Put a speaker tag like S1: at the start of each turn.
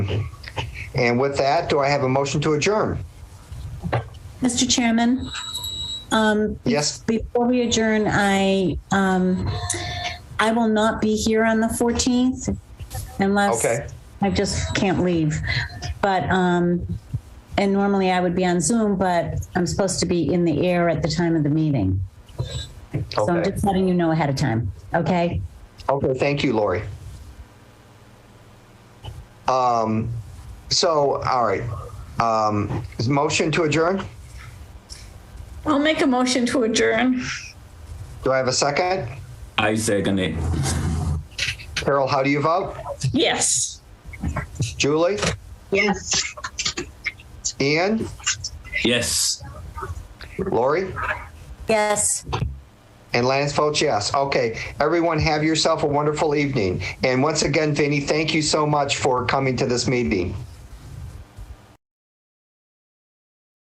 S1: And with that, do I have a motion to adjourn?
S2: Mr. Chairman, um,
S1: Yes,
S2: before we adjourn, I, um, I will not be here on the 14th unless
S1: Okay.
S2: I just can't leave. But, um, and normally I would be on Zoom, but I'm supposed to be in the air at the time of the meeting. So I'm
S1: okay.
S2: just letting you know ahead of time, okay?
S1: Okay, thank you, Lori. Um, so, all right. Um, is motion to adjourn?
S3: I'll make a motion to adjourn.
S1: Do I have a second?
S4: I second it.
S1: Carol, how do you vote?
S3: Yes.
S1: Julie?
S5: Yes.
S1: Ian?
S4: Yes.
S1: Lori?
S2: Yes.
S1: And Lance votes yes. Okay. Everyone, have yourself a wonderful evening. And once again, Vinny, thank you so much for coming to this meeting.